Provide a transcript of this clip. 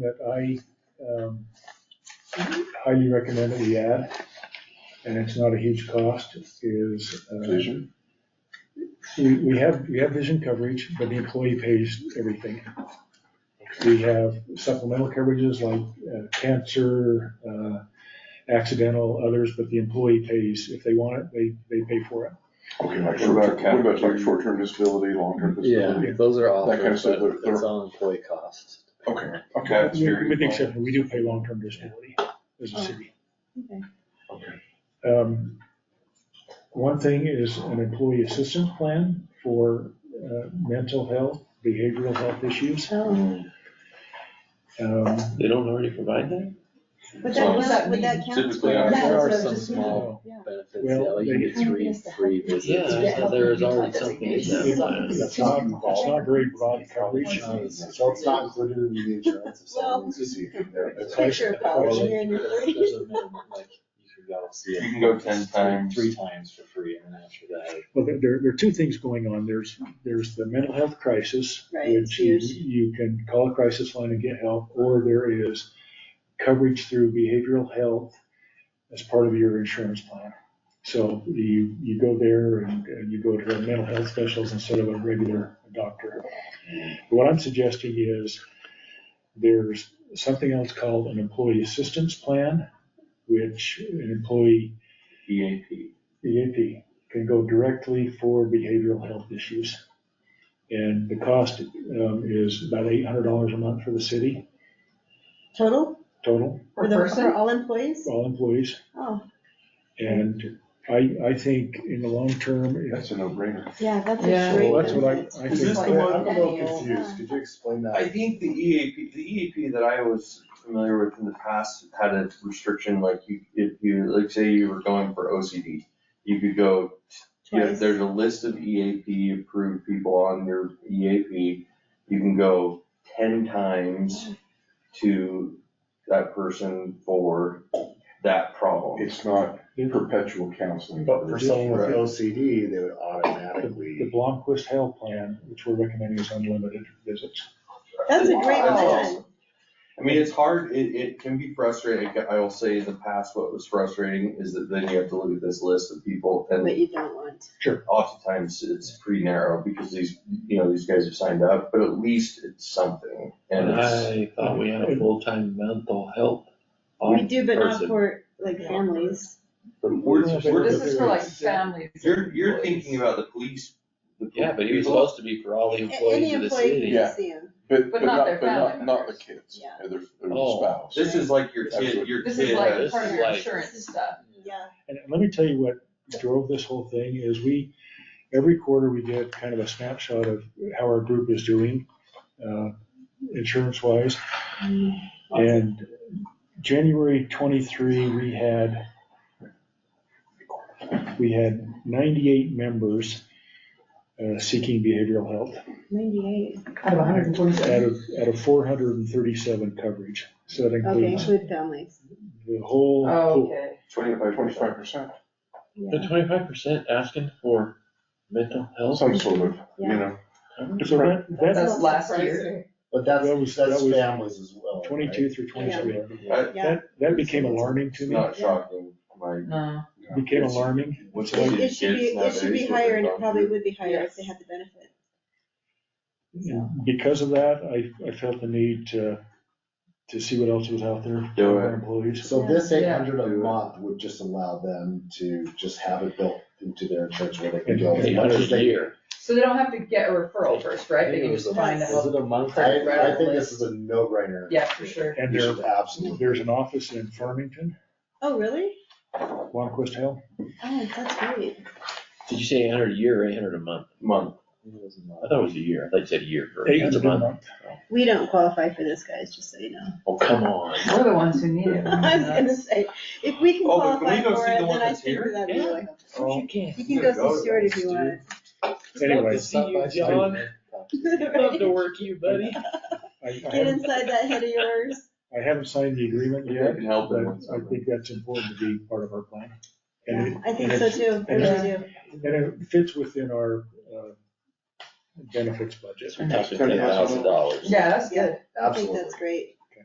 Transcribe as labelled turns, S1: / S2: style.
S1: that I um, highly recommend that we add, and it's not a huge cost, is. uh,
S2: Vision.
S1: We, we have, we have vision coverage, but the employee pays everything. We have supplemental coverages like uh, cancer, uh, accidental, others, but the employee pays. If they want it, they, they pay for it.
S2: Okay, like
S3: What about
S2: short, what about like
S3: capital?
S2: short-term disability, long-term disability?
S4: Yeah, those are
S2: That kind of
S4: offers,
S2: stuff,
S4: but
S2: they're- they're-
S4: it's all employee costs.
S2: Okay, okay,
S3: That's very
S1: With the exception, we do pay long-term disability as a
S5: Oh.
S1: city.
S5: Okay.
S2: okay.
S1: Um, One thing is an employee assistance plan for uh, mental health, behavioral health issues.
S5: Oh,
S3: But
S1: Um,
S6: They don't already provide that?
S5: Would
S3: So-
S5: that, would that, would that count?
S3: Typically, I-
S4: There
S5: That was
S4: are
S5: what I was
S4: some
S5: just
S4: small-
S5: wondering. Yeah.
S4: Benefits, yeah,
S1: Well,
S4: like
S1: they-
S4: you get three, three
S6: Yeah,
S4: visits.
S6: I thought there was already something in
S1: it-
S6: that.
S1: It's not, it's not very broad coverage.
S3: So it's not included in the insurance if someone needs to see you there.
S1: It's like-
S5: Picture of
S4: Well,
S5: college
S4: like,
S5: here in your
S4: there's-
S5: thirties.
S4: there's a minimum, like, you can go see it
S3: You can go 10
S4: three-
S3: times.
S4: Three times for free, and then after that.
S1: Well, there- there, there are two things going on. There's, there's the mental health crisis,
S5: Right,
S1: which you,
S5: huge.
S1: you can call a crisis line and get help, or there is coverage through behavioral health as part of your insurance plan. So you, you go there and and you go to a mental health specialist instead of a regular doctor. What I'm suggesting is there's something else called an employee assistance plan, which an employee
S3: EAP.
S1: EAP can go directly for behavioral health issues. And the cost um, is about eight hundred dollars a month for the city
S5: Total,
S1: total,
S5: for the, for all employees?
S1: for all employees.
S5: Oh,
S1: And I, I think in the long term, it's-
S2: That's a no-brainer.
S5: yeah, that's
S4: Yeah.
S5: a great.
S1: Well, that's what I-
S5: benefit.
S1: I
S3: Is
S1: think-
S3: this the
S1: Yeah,
S3: one?
S1: I'm
S3: i
S1: a
S5: little
S3: confused.
S5: confused.
S3: Could
S5: Could
S3: you
S5: you
S3: explain that? I think the EAP, the EAP that I was familiar with in the past had a restriction, like you, if you, like say you were going for OCD, you could go, yeah,
S5: Twice.
S3: there's a list of EAP approved people on your EAP. You can go ten times to that person for that problem.
S2: It's not perpetual counseling.
S3: for
S2: Or-
S3: someone with
S2: OCD, they would
S1: the
S2: automatically.
S1: Blomquist Health Plan, which we're recommending is unlimited visits.
S5: That's a great
S3: That's
S5: plan.
S3: awesome. I mean, it's hard, it, it can be frustrating, I will say in the past, what was frustrating is that then you have to look at this list of people and
S5: But you don't want.
S3: oftentimes it's pretty narrow because these, you know, these guys have signed up, but at least it's something. And it's,
S6: I thought we had a full-time mental health.
S5: We do, but not
S6: person.
S5: for like families.
S3: we're, we're,
S7: This is for like families.
S3: you're, you're thinking about the police. the
S6: Yeah, but he was
S3: people.
S6: supposed to be for all the
S5: A- Any
S6: employees of the
S5: employee
S6: city.
S2: Yeah.
S5: can see them.
S2: But, but
S7: not
S2: not,
S7: their
S2: but not,
S7: family
S2: not the
S7: members.
S2: kids,
S5: Yeah.
S2: or their, or the
S6: Oh.
S2: spouse.
S3: This is like your kid,
S2: Absolutely.
S3: your
S7: This is
S3: kid
S7: like
S3: has,
S7: part of your insurance stuff.
S5: Yeah,
S1: And and let me tell you what drove this whole thing is we, every quarter we get kind of a snapshot of how our group is doing, uh, insurance wise.
S5: Mm.
S1: And January twenty-three, we had, we had ninety-eight members uh, seeking behavioral health
S5: ninety-eight.
S8: Out of hundred and
S1: out
S8: forty-seven.
S1: of, out of four hundred and thirty-seven coverage. So that
S5: Okay, Oh,
S1: includes
S5: include families.
S1: the whole. pool.
S7: Oh, Okay.
S2: Twenty-five
S3: twenty-five, twenty-five.
S2: percent,
S6: The twenty-five percent asking for mental health?
S2: some sort of, you
S5: Yeah.
S2: know.
S1: So that, that,
S7: That's last year.
S1: That was- that's
S3: that's,
S1: that was
S3: families as well.
S1: twenty-two through twenty-three.
S5: Yeah.
S1: That, that became alarming to
S3: It's
S1: me,
S3: not shocking, like.
S7: No.
S1: became alarming.
S3: What's
S5: It, it should be, it should be higher and it probably would be higher if
S7: Yes.
S5: they had the benefit.
S1: And Because of that, I, I felt the need to, to see what else was out there
S3: Do
S1: for our
S3: it.
S1: employees.
S9: So this eight
S7: Yeah.
S9: hundred a
S3: Do it.
S9: month would just allow them to just have it built into their insurance where they can go as
S6: Eight
S9: much
S6: hundred
S9: as
S6: a
S9: they.
S6: year.
S7: So they don't have to get a referral first, right?
S4: I
S7: They
S4: think it
S7: can
S4: was
S7: just
S4: a-
S7: find
S4: Was
S7: out.
S4: it a month?
S9: I,
S7: Right on
S9: I think
S7: the
S9: this is a no-brainer.
S7: Yeah, for sure.
S1: And
S9: You
S1: there,
S9: should absolutely.
S1: there's an office in Farmington,
S5: Oh, really?
S1: Longquest Hill.
S5: Oh, that's great.
S6: Did you say eight hundred a year or eight hundred a month?
S3: Month,
S6: I thought it was a year. I thought you said a year for,
S1: Eight
S6: that's a
S1: hundred a
S6: month.
S1: month.
S5: We don't qualify for this, guys, just so you know.
S6: Oh, come on.
S7: We're the ones who need it.
S5: I was gonna say, if we can
S3: Oh, but can
S5: qualify
S3: we go
S5: for
S3: see the
S5: it,
S3: one
S5: then I
S3: that's
S5: think
S3: here?
S5: that'd be really helpful.
S6: Oh, you can't.
S5: You can
S3: Yeah,
S5: go
S3: go
S5: see
S3: to
S5: Stuart if you
S3: Stuart.
S5: want.
S1: Anyway,
S4: Stop by,
S6: Anyways.
S4: stop
S6: John.
S4: by.
S6: Love to work you, buddy.
S1: I, I
S5: Get
S1: haven't,
S5: inside that head of yours.
S1: I haven't signed the agreement
S3: if
S1: yet,
S3: they can help
S1: but
S3: it with
S1: I
S3: something.
S1: think that's important to be part of our plan. And it-
S5: Yeah, I think
S1: and
S5: so
S1: it-
S5: too, I
S1: and
S5: really do.
S1: And it fits within our, uh, benefits budget.
S6: Talking ten thousand dollars.
S7: Yeah, that's good.
S5: I think that's great.